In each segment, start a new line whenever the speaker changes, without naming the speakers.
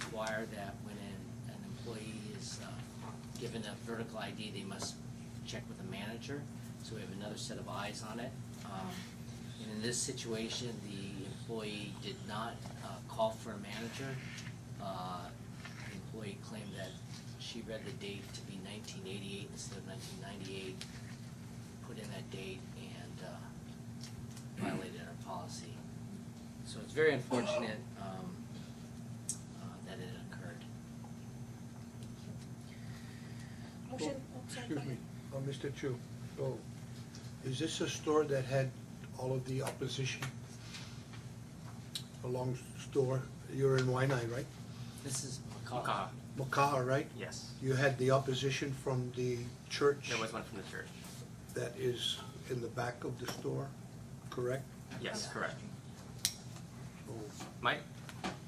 require that when an, an employee is, uh, given a vertical ID, they must check with the manager, so we have another set of eyes on it. Um, and in this situation, the employee did not, uh, call for a manager. Uh, the employee claimed that she read the date to be nineteen eighty-eight instead of nineteen ninety-eight, put in that date and, uh, violated our policy. So it's very unfortunate, um, uh, that it occurred.
Motion, oh, sorry, go
Excuse me,
ahead.
uh, Mr. Chu, so, is this a store that had all of the opposition? A long store, you're in Waianae, right?
This is
Macaw,
Macaw.
Maka'a, right?
yes.
You had the opposition from the church
There was one from the church.
that is in the back of the store, correct?
Yes, correct.
Oh,
My,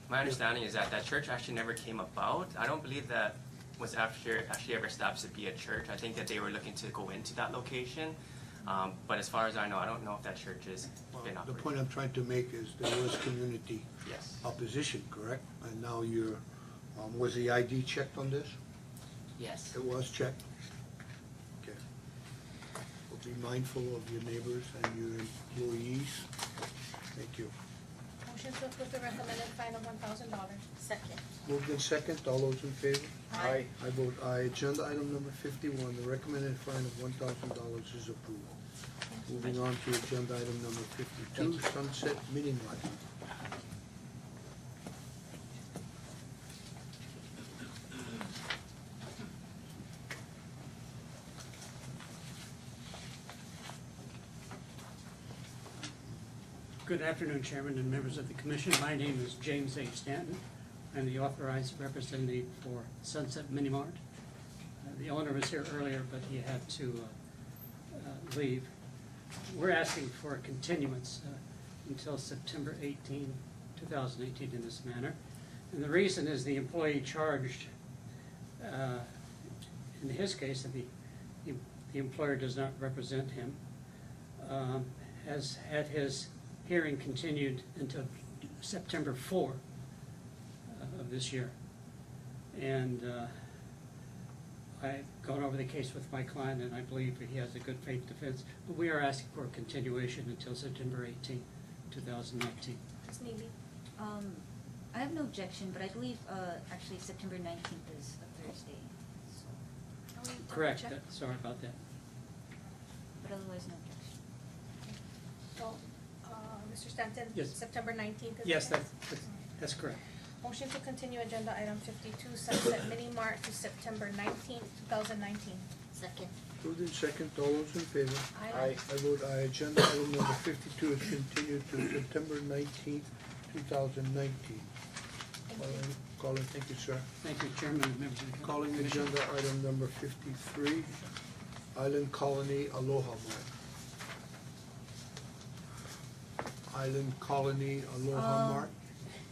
my understanding is that that church actually never came about. I don't believe that was after actually ever established to be a church. I think that they were looking to go into that location. Um, but as far as I know, I don't know if that church has
well,
been
The
operating.
point I'm trying to make is there was community
Yes,
opposition, correct? And now you're, um, was the ID checked on this?
Yes,
It was checked? Okay. Well, Be mindful of your neighbors and your employees. Thank you.
Motion to approve the recommended fine of one thousand dollars. Second.
Moved in second, all those in favor?
Aye.
I vote aye. Agenda item number fifty-one, the recommended fine of one thousand dollars is approved. Moving on to agenda item number fifty-two, Sunset Mini Mart.
Good afternoon, Chairman and members of the commission. My name is James H. Stanton. I'm the authorized representative for Sunset Mini Mart. Uh, The owner was here earlier, but he had to uh, uh, leave. We're asking for a continuance uh, until September 18, 2018 in this manner. And the reason is the employee charged, uh, in his case, the the employer does not represent him um, has had his hearing continued until September 4 uh, of this year. And uh, I've gone over the case with my client, and I believe that he has a good faith defense. But we are asking for a continuation until September 18, 2019.
Ms. Neely, um, I have no objection, but I believe, uh, actually September nineteenth is a Thursday, so,
Can we double
Correct,
check?
that- sorry about that.
but otherwise, no objection.
So, uh, Mr. Stanton?
Yes.
September nineteenth is?
Yes,
the-
that's, that's- that's correct.
Motion to continue agenda item fifty-two, Sunset Mini Mart to September nineteenth, two thousand nineteen.
Second.
Moved in second, all those in favor?
Aye.
I vote aye. Agenda item number fifty-two is continued to September nineteenth, two thousand nineteen.
Thank you.
Calling, calling, thank you, sir.
Thank you, Chairman and members of the commission.
Calling agenda item number fifty-three, Island Colony Aloha Mart. Island Colony Aloha
Um,
Mart,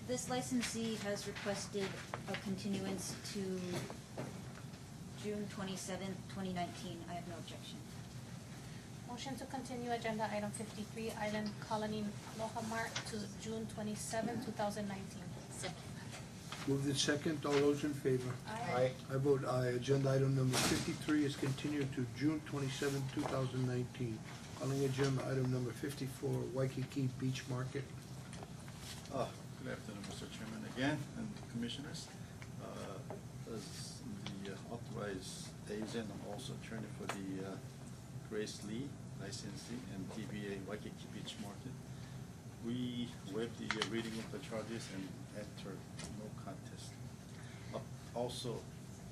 This licensee has requested a continuance to June twenty-seventh, twenty nineteen. I have no objection.
Motion to continue agenda item fifty-three, Island Colony Aloha Mart to June twenty-seven, two thousand nineteen.
moved in second, all those in favor?
Aye.
I vote aye. Agenda item number fifty-three is continued to June twenty-seven, two thousand nineteen. Calling agenda item number fifty-four, Waikiki Beach Market.
Uh, Good afternoon, Mr. Chairman, again, and Commissioners. Uh, As the uh, authorized agent, I'm also attorney for the uh, Grace Lee licensee and DBA Waikiki Beach Market. We waive the uh, reading of the charges and enter no contest. Uh, Also,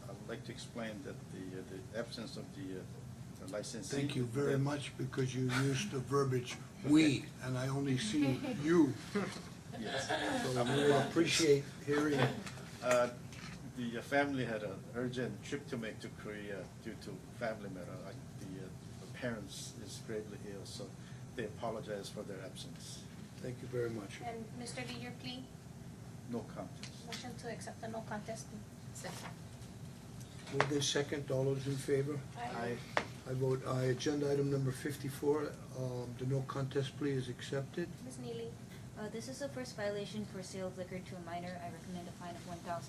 I would like to explain that the uh, the absence of the uh, the licensee.
Thank you very
that-
much because you used the verbiage "we" and I only see you.
Yes.
So we appreciate hearing
Uh, The uh, family had an urgent trip to make to Korea due to family matter. Like the, uh, the parents is gravely ill, so they apologize for their absence.
Thank you very much.
And Mr. Lee, your plea,
No contest.
motion to accept the no contest plea.
Second.
Moved in second, all those in favor? I vote aye. Agenda item number fifty-four, um, the no contest plea is accepted.
Ms. Neely?
Uh, this is a first violation for sale of liquor to a minor. I recommend a fine of one thousand